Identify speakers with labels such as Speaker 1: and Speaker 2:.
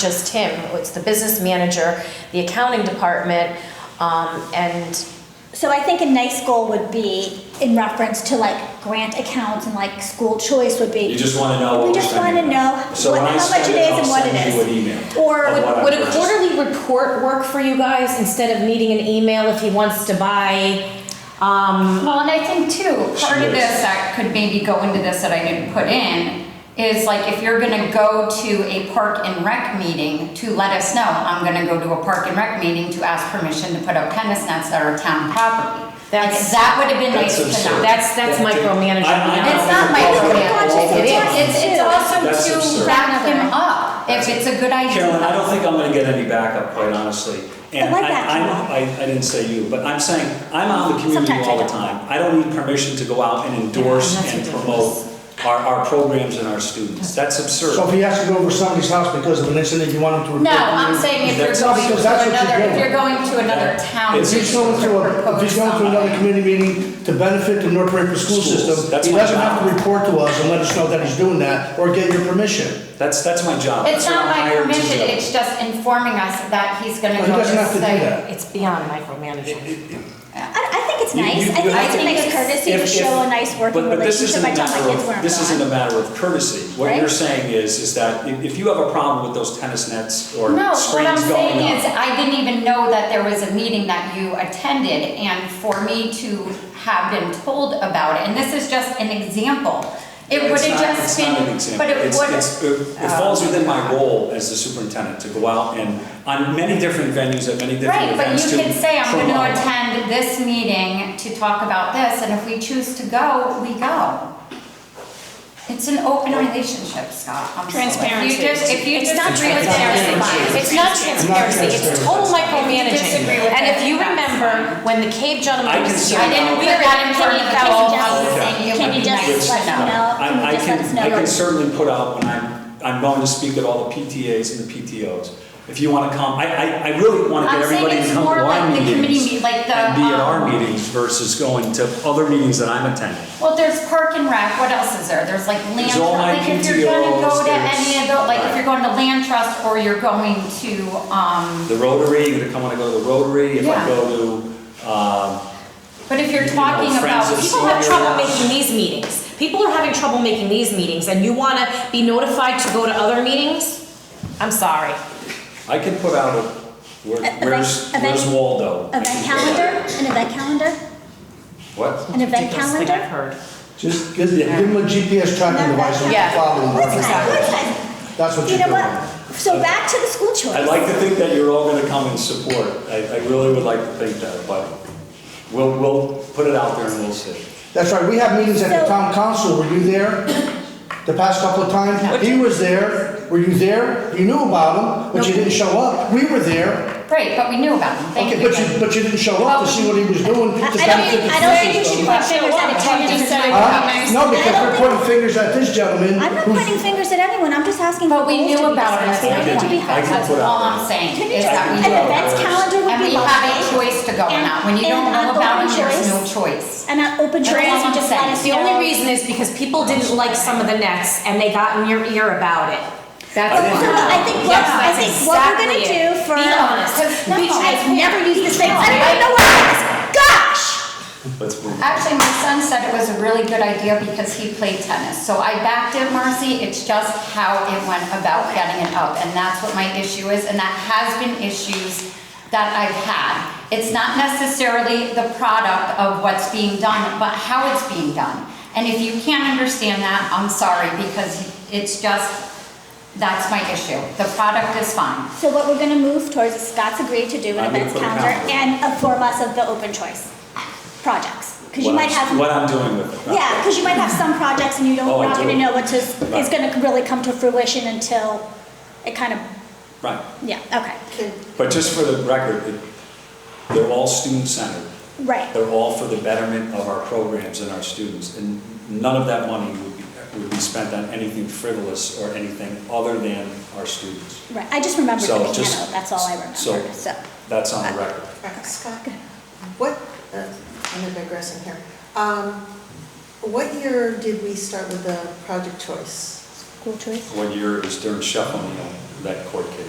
Speaker 1: just him, it's the business manager, the accounting department, um, and
Speaker 2: So I think a nice goal would be in reference to like grant accounts and like school choice would
Speaker 3: You
Speaker 2: be.
Speaker 3: just want to know what
Speaker 2: We
Speaker 3: we're
Speaker 2: just want to
Speaker 3: spending.
Speaker 2: know
Speaker 3: So
Speaker 2: what,
Speaker 3: when I
Speaker 2: how much
Speaker 3: spend
Speaker 2: it
Speaker 3: it,
Speaker 2: is
Speaker 3: I'll
Speaker 2: and what it
Speaker 3: send you an
Speaker 2: is.
Speaker 3: email.
Speaker 2: Or
Speaker 3: Of
Speaker 2: would-
Speaker 3: what I
Speaker 4: Would a
Speaker 3: purchased.
Speaker 4: quarterly report work for you guys instead of needing an email if he wants to buy, um,
Speaker 5: Well, and I think too, part of
Speaker 3: Sure.
Speaker 5: this that could maybe go into this that I didn't put in is like if you're gonna go to a park and rec meeting to let us know, I'm gonna go to a park and rec meeting to ask permission to put up tennis nets that are town property. Like,
Speaker 4: That's-
Speaker 5: that would have been nice
Speaker 3: That's
Speaker 5: to
Speaker 3: absurd.
Speaker 5: know.
Speaker 4: That's- that's
Speaker 3: That-
Speaker 4: micromanaging.
Speaker 3: I- I
Speaker 4: It's
Speaker 3: know
Speaker 5: It's not
Speaker 3: people all the
Speaker 5: micromanaging,
Speaker 3: time.
Speaker 4: It is.
Speaker 5: it's, it's
Speaker 3: That's
Speaker 5: also
Speaker 3: absurd.
Speaker 5: to back him up if it's a good idea.
Speaker 3: Carolyn, I don't think I'm gonna get any backup, quite honestly. And
Speaker 2: like
Speaker 3: I,
Speaker 2: that,
Speaker 3: I'm- I, I didn't say you, but I'm saying, I'm out in the community
Speaker 2: Sometimes I
Speaker 3: all the
Speaker 2: don't.
Speaker 3: time. I don't need permission to go out and endorse
Speaker 4: Yeah, that's
Speaker 3: and
Speaker 4: ridiculous.
Speaker 3: promote our, our programs and our students. That's
Speaker 6: So if
Speaker 3: absurd.
Speaker 6: he has to go over somebody's house because of an incident, you want him to report?
Speaker 5: No,
Speaker 6: to
Speaker 5: I'm
Speaker 6: you?
Speaker 5: saying if you're
Speaker 3: That's-
Speaker 5: going to
Speaker 6: because that's what you're
Speaker 5: another, if
Speaker 6: doing.
Speaker 5: you're going to another town.
Speaker 3: It's-
Speaker 6: If he's
Speaker 5: meeting
Speaker 6: going to, a- if
Speaker 5: propose
Speaker 6: he's going to another
Speaker 5: something.
Speaker 6: community meeting to benefit the North Branford school
Speaker 3: Schools,
Speaker 6: system,
Speaker 3: that's
Speaker 6: he
Speaker 3: my
Speaker 6: doesn't
Speaker 3: job.
Speaker 6: have to report to us and let us know that he's doing that, or get your permission.
Speaker 3: That's, that's my job.
Speaker 5: It's
Speaker 3: That's what
Speaker 5: not
Speaker 3: I'm
Speaker 5: by
Speaker 3: hired to
Speaker 5: permission,
Speaker 3: do.
Speaker 5: it's just informing us that he's gonna
Speaker 6: Well,
Speaker 5: go.
Speaker 6: he doesn't have to do
Speaker 5: say-
Speaker 6: that.
Speaker 4: it's beyond micromanaging.
Speaker 2: I, I think it's
Speaker 3: You-
Speaker 2: nice. I
Speaker 3: you- you
Speaker 2: think it's
Speaker 3: have
Speaker 2: a
Speaker 3: to-
Speaker 2: nice courtesy to
Speaker 3: If- if-
Speaker 2: show a nice working
Speaker 3: but- but this
Speaker 2: relationship.
Speaker 3: isn't
Speaker 2: I
Speaker 3: a
Speaker 2: tell my
Speaker 3: matter of-
Speaker 2: kids where I'm
Speaker 3: This isn't a
Speaker 2: going.
Speaker 3: matter of courtesy. What you're
Speaker 2: Right?
Speaker 3: saying is, is that if, if you have a problem with those tennis nets or
Speaker 5: No, what I'm
Speaker 3: screens
Speaker 5: saying
Speaker 3: going
Speaker 5: is,
Speaker 3: up,
Speaker 5: I didn't even know that there was a meeting that you attended, and for me to have been told about it, and this is just an example. It would
Speaker 3: it's
Speaker 5: have
Speaker 3: not, it's
Speaker 5: just
Speaker 3: not
Speaker 5: been,
Speaker 3: an example.
Speaker 5: but it
Speaker 3: It's-
Speaker 5: would.
Speaker 3: it's- It it falls within my role as the superintendent to go out and, on many different venues, at many different
Speaker 5: Right, but
Speaker 3: events
Speaker 5: you
Speaker 3: to
Speaker 5: could say, I'm gonna
Speaker 3: promote.
Speaker 5: attend this meeting to talk about this, and if we choose to go, we go. It's an open relationship, Scott, I'm sorry.
Speaker 1: Transparency.
Speaker 5: You just, if you
Speaker 1: It's not
Speaker 5: disagree with
Speaker 1: transparency.
Speaker 5: everybody-
Speaker 1: It's not transparency, it's total micromanaging.
Speaker 5: disagree with
Speaker 1: And if you
Speaker 5: it, that's
Speaker 1: remember, when the cave
Speaker 3: I
Speaker 1: gentleman
Speaker 3: can
Speaker 1: was
Speaker 3: see
Speaker 1: here.
Speaker 5: I didn't
Speaker 1: we
Speaker 5: hear
Speaker 1: were
Speaker 5: that in
Speaker 1: getting
Speaker 5: front of
Speaker 1: paid
Speaker 2: Oh,
Speaker 1: fellow.
Speaker 5: you, I was
Speaker 3: Okay.
Speaker 5: thinking it
Speaker 2: Can
Speaker 5: would
Speaker 2: you
Speaker 5: be
Speaker 2: just
Speaker 5: nice
Speaker 2: let
Speaker 5: to
Speaker 2: me
Speaker 5: know.
Speaker 2: know? Can you
Speaker 3: I, I
Speaker 2: just let us
Speaker 3: can,
Speaker 2: know
Speaker 3: I
Speaker 2: your-
Speaker 3: can certainly put out when I'm, I'm going to speak at all the PTAs and the PTOs. If you want to come, I, I, I really want to
Speaker 5: I'm
Speaker 3: get
Speaker 5: saying
Speaker 3: everybody to
Speaker 5: it's
Speaker 3: come
Speaker 5: more
Speaker 3: to
Speaker 5: like
Speaker 3: our
Speaker 5: the committee
Speaker 3: meetings
Speaker 5: meet- like the,
Speaker 3: and be at our
Speaker 5: um,
Speaker 3: meetings versus going to other meetings that I'm attending.
Speaker 5: Well, there's park and rec, what else is there? There's like land
Speaker 3: There's
Speaker 5: trust,
Speaker 3: all my
Speaker 5: like if you're gonna go
Speaker 3: PTOs,
Speaker 5: to any of
Speaker 3: there's-
Speaker 5: those, like if you're going to land trust or you're going to, um,
Speaker 3: The Rotary, you're gonna come when I go to the Rotary, if I
Speaker 5: Yeah.
Speaker 3: go to, um,
Speaker 5: but if
Speaker 3: You
Speaker 5: you're
Speaker 3: know,
Speaker 5: talking
Speaker 3: friends
Speaker 5: about
Speaker 3: of
Speaker 5: people
Speaker 3: senior-
Speaker 4: People have trouble making these meetings. People are having trouble making these meetings and you wanna be notified to go to other meetings? I'm sorry.
Speaker 3: I can put out a, where-
Speaker 2: Event-
Speaker 3: where's,
Speaker 2: E-, event-
Speaker 3: where's Waldo? I
Speaker 2: Event
Speaker 3: can put
Speaker 2: calendar,
Speaker 3: that.
Speaker 2: an event calendar,
Speaker 3: What?
Speaker 2: an event
Speaker 4: Ridiculous thing I've
Speaker 2: calendar.
Speaker 4: heard.
Speaker 6: Just give, give him a GPS tracking
Speaker 2: No,
Speaker 6: device and
Speaker 4: yeah.
Speaker 6: follow him.
Speaker 2: What's that? What's that?
Speaker 6: That's what
Speaker 2: You
Speaker 6: you're
Speaker 2: know
Speaker 6: doing.
Speaker 2: what? So back to the school choice.
Speaker 3: I'd like to think that you're all gonna come and support, I, I really would like to think that, but we'll, we'll put it out there and we'll see.
Speaker 6: That's right, we have meetings at the
Speaker 2: So-
Speaker 6: town council, were you there? The past couple of times, he was there, were you there? You knew about him, but you didn't show up, we were there.
Speaker 5: Right, but we knew about them, thank
Speaker 6: Okay,
Speaker 5: you.
Speaker 6: but you, but you didn't show up
Speaker 5: Well,
Speaker 6: to see what he was
Speaker 2: I I
Speaker 6: doing.
Speaker 2: don't
Speaker 6: to benefit
Speaker 2: think,
Speaker 6: the
Speaker 2: I don't think you should
Speaker 6: school system.
Speaker 2: put fingers at a ten different
Speaker 6: Huh? No, because
Speaker 2: I don't
Speaker 6: we're pointing fingers at this gentleman.
Speaker 2: I'm not
Speaker 6: who's-
Speaker 2: pointing fingers at anyone, I'm just asking. for
Speaker 5: But
Speaker 2: goals
Speaker 5: we
Speaker 2: to
Speaker 5: knew
Speaker 2: be
Speaker 5: about it,
Speaker 2: discussed.
Speaker 3: I
Speaker 5: that's
Speaker 3: can-
Speaker 5: what we
Speaker 3: I
Speaker 5: had,
Speaker 3: can
Speaker 5: that's
Speaker 3: put out
Speaker 5: all
Speaker 3: there.
Speaker 5: I'm saying,
Speaker 2: Can you
Speaker 5: is
Speaker 2: just-
Speaker 5: that we
Speaker 3: I
Speaker 2: An
Speaker 3: can-
Speaker 5: go.
Speaker 2: events calendar would
Speaker 5: And
Speaker 2: be
Speaker 5: we have a
Speaker 2: lovely.
Speaker 5: choice to go or
Speaker 2: And-
Speaker 5: not, when you
Speaker 2: and
Speaker 5: don't know
Speaker 2: an open
Speaker 5: about them, there's no
Speaker 2: choice.
Speaker 5: choice.
Speaker 2: And an open
Speaker 5: That's
Speaker 2: choice,
Speaker 5: all
Speaker 2: you
Speaker 5: I'm
Speaker 2: just let
Speaker 5: saying.
Speaker 2: us
Speaker 4: The
Speaker 2: know.
Speaker 4: only reason is because people didn't like some of the nets and they got in your ear about it. That's
Speaker 3: I didn't-
Speaker 4: why.
Speaker 2: I think what-
Speaker 4: Yes,
Speaker 2: I
Speaker 4: that's
Speaker 2: think what we're gonna
Speaker 4: exactly
Speaker 2: do
Speaker 4: it.
Speaker 2: for-
Speaker 4: Be honest. Be
Speaker 5: No,
Speaker 2: I've
Speaker 4: transparent.
Speaker 2: never used this phrase,
Speaker 4: No,
Speaker 2: I don't even
Speaker 4: I-
Speaker 2: know what it is, gosh!
Speaker 3: Let's
Speaker 2: Uh,
Speaker 3: move.
Speaker 5: Actually, my son said it was a really good idea because he played tennis. So I backed him, Marcy. It's just how it went about getting it up. And that's what my issue is. And that has been issues that I've had. It's not necessarily the product of what's being done, but how it's being done. And if you can't understand that, I'm sorry because it's just, that's my issue. The product is fine.
Speaker 2: So what we're gonna move towards is Scott's agreed to do an
Speaker 3: I'm gonna
Speaker 2: events
Speaker 3: put a
Speaker 2: calendar
Speaker 3: calendar.
Speaker 2: and inform us of the open choice projects. Cause you
Speaker 3: What
Speaker 2: might
Speaker 3: I'm-
Speaker 2: have,
Speaker 3: What I'm doing with it.
Speaker 2: yeah, cause you might have some projects and you don't,
Speaker 3: Oh, I
Speaker 2: not
Speaker 3: do.
Speaker 2: gonna know what to, is
Speaker 3: Right.
Speaker 2: gonna really come to fruition until it kind of,
Speaker 3: Right,
Speaker 2: yeah, okay.
Speaker 3: but just for the record, it- they're all student-centered.
Speaker 2: Right.
Speaker 3: They're all for the betterment of our programs and our students, and none of that money would be, would be spent on anything frivolous or anything other than our students.
Speaker 2: Right, I just remembered the
Speaker 3: So
Speaker 2: piano,
Speaker 3: just-
Speaker 2: that's all I remembered,
Speaker 3: so-
Speaker 2: so.
Speaker 3: That's on the record.
Speaker 7: Right, Scott, what, uh, I'm digressing here. Um, What year did we start with the project choice?
Speaker 2: School choice?
Speaker 3: What year it was during Shuffle, you know, that court case.